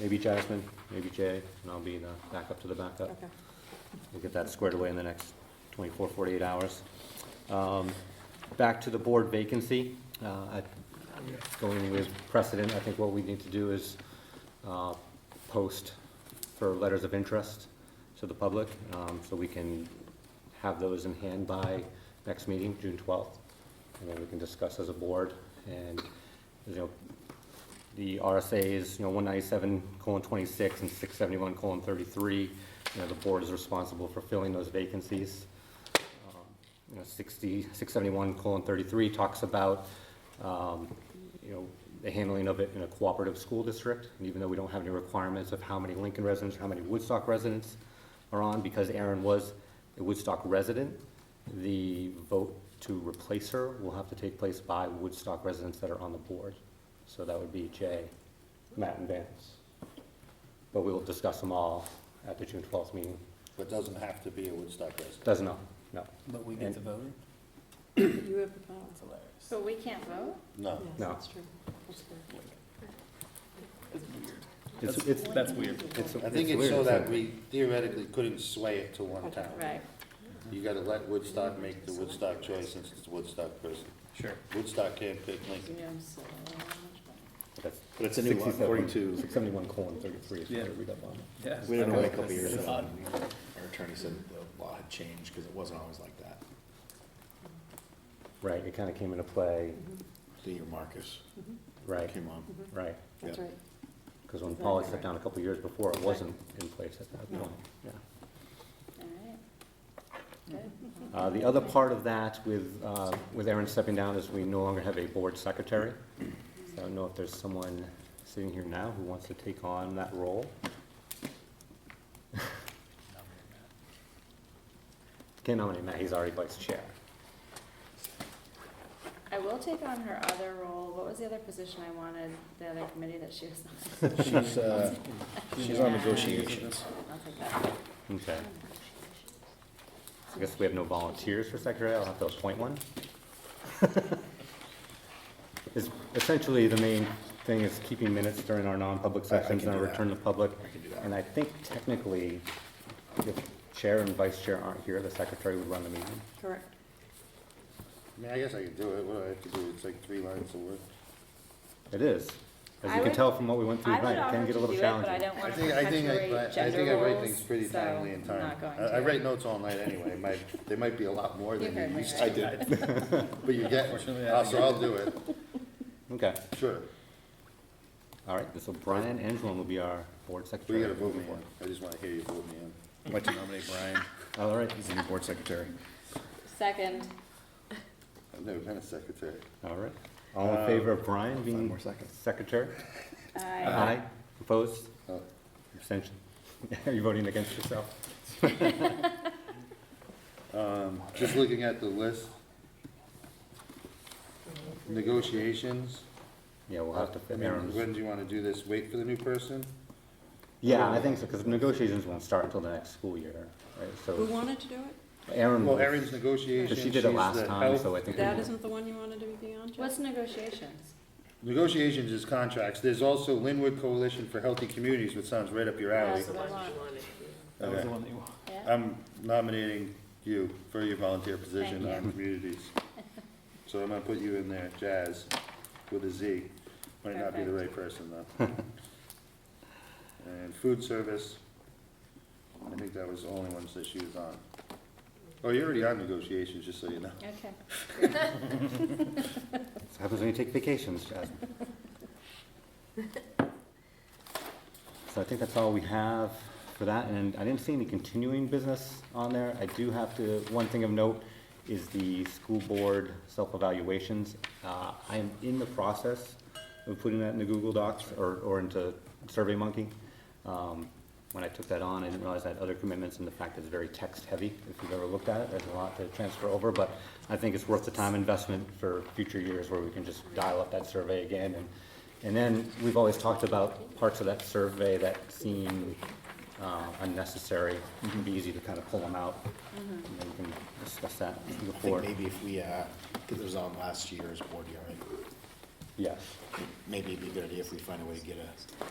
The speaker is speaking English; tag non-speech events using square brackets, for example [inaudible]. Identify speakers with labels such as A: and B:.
A: maybe Jasmine, maybe Jay, and I'll be the backup to the backup.
B: Okay.
A: We'll get that squared away in the next 24, 48 hours. Um, Back to the board vacancy. uh, I- Going with precedent, I think what we need to do is uh, post for letters of interest to the public, um, so we can have those in hand by next meeting, June 12th. And then we can discuss as a board. And, you know, the RSA is, you know, 197 colon 26 and 671 colon 33. You know, the board is responsible for filling those vacancies. Um, You know, 60, 671 colon 33 talks about, um, you know, the handling of it in a cooperative school district. And even though we don't have any requirements of how many Lincoln residents, how many Woodstock residents are on, because Erin was a Woodstock resident, the vote to replace her will have to take place by Woodstock residents that are on the board. So that would be Jay, Matt, and Vance. But we will discuss them all at the June twelfth meeting.
C: But doesn't have to be a Woodstock resident.
A: Doesn't know, no,
D: But we
A: And-
D: get to vote it?
B: You have the power.
D: That's hilarious.
E: But we can't vote?
C: No.
B: Yes,
A: Oh, No.
B: that's true. That's good.
D: That's weird.
A: It's,
D: That's-
A: it's,
D: That's weird.
A: it's.
C: I think it's
A: weird.
C: so that we theoretically couldn't sway it to one
B: Okay.
C: town.
E: Right.
C: You gotta let Woodstock make the Woodstock choice since it's a Woodstock person.
D: Sure.
C: Woodstock can't pick Lincoln.
B: Yeah, I'm so much better.
A: That's
F: But it's a new law, according
A: 67
F: to,
A: 671 colon thirty-three is
D: Yeah.
A: what I read up on.
D: Yeah.
F: we didn't know a couple of years ago, our attorney said the law had changed because it wasn't always like that.
A: Right, it kind of came into play,
E: Mm-hmm.
F: The year Marcus
A: right,
F: came on.
A: right.
B: That's
F: Yeah.
B: right.
A: Because when
B: Exactly
A: Polly sat
B: right.
A: down a couple years before, it
B: Right.
A: wasn't in place at that
B: No.
A: point, yeah.
E: All right. Good.
C: Mm-hmm.
A: Uh, The other part of that with, uh, with Aaron stepping down is we no longer have a board secretary. So I don't know if there's someone sitting here now who wants to take on that role. [laughs] Can't nominate Matt, he's already vice chair.
E: I will take on her other role. What was the other position I wanted, the other committee that she was
A: [laughs]
E: on?
F: She's, uh, she's on negotiations.
E: I'll take that.
A: Okay. I guess we have no volunteers for secretary, I'll have to appoint one. [laughs] Is- Essentially, the main thing is keeping minutes during our non-public
F: I- I
A: sessions
F: can
A: and
F: do that.
A: return to public.
F: I can do
A: And
F: that.
A: I think technically, if chair and vice chair aren't here, the secretary would run the meeting.
B: Correct.
C: I mean, I guess I could do it. What do I have to do? It's like three lines of work.
A: It is. As you
E: I
A: can
E: would-
A: tell from what we went through
E: I would
A: tonight, it
E: offer
A: can
E: to
A: get a
E: do
A: little
E: it, but I
A: challenging.
E: don't
C: I
E: want to
C: think, I think, I-
E: perpetuate
C: I, I think I
E: gender
C: write
E: roles,
C: things pretty
E: so
C: timely in
E: I'm
C: time.
E: not
C: I, I
E: going
C: write
E: to.
C: notes all night anyway. Might, there might be a lot more
E: You heard
C: than you
E: my
C: used
F: I
C: to.
F: did.
C: But you get,
D: Unfortunately, I
C: uh,
D: think
C: so
D: I-
C: I'll do it.
A: Okay,
C: Sure.
A: all right, so Brian Angelon will be our board
C: We
A: secretary.
C: gotta vote me in. I just wanna hear you vote me in.
F: I'd like to nominate Brian,
A: All right,
F: he's the new board secretary.
E: Second.
C: I've never been a secretary.
A: all right. All in favor of Brian
F: Five
A: being
F: more seconds.
A: secretary?
E: Aye.
A: Aye. Opposed?
C: Oh.
A: Abstention? [laughs] Are you voting against yourself?
C: Um, just looking at the list. Negotiations.
A: Yeah, we'll have to
C: I
A: fit
C: mean,
A: Aaron's.
C: when do you wanna do this? Wait for the new person?
A: Yeah, I think so, because negotiations won't start until the next school year, right?
B: Who
A: So
B: wanted to do it?
A: Aaron,
C: Well,
A: will-
C: Erin's negotiations.
A: but Hmm. she did it
C: she's
A: last
C: the
A: time,
C: health-
A: so I think. we
B: That
A: will.
B: isn't the one you wanted to be on, Jeff?
E: What's negotiations?
C: Negotiations is contracts. There's also Linwood Coalition for Healthy Communities, which sounds right up your alley.
E: That's the one.
D: That was the
C: Okay.
D: one that you wanted.
E: Yeah.
C: I'm nominating you for your volunteer position
E: Thank
C: on communities. So I'm gonna put you in there, Jazz, with a Z. Might not be the right person, though. [laughs] And food service, I think that was the only ones that she was on. Oh, you're already on negotiations, just so you know.
E: Okay.
A: This happens when you take vacations, Jasmine. [laughs] So I think that's all we have for that, and I didn't see any continuing business on there. I do have to, one thing of note is the school board self-evaluations. Uh, I am in the process of putting that into Google Docs or, or into SurveyMonkey. Um, When I took that on, I didn't realize I had other commitments and the fact that it's very text-heavy. If you've ever looked at it, there's a lot to transfer over, but I think it's worth the time investment for future years where we can just dial up that survey again. And and then, we've always talked about parts of that survey that seem uh, unnecessary. It can be easy to kind of pull them out, and then we can discuss that
F: I think
A: before.
F: maybe if we, uh, because it was on last year's board hearing,
A: Yes,
F: maybe it'd be a good idea if we find a way to get a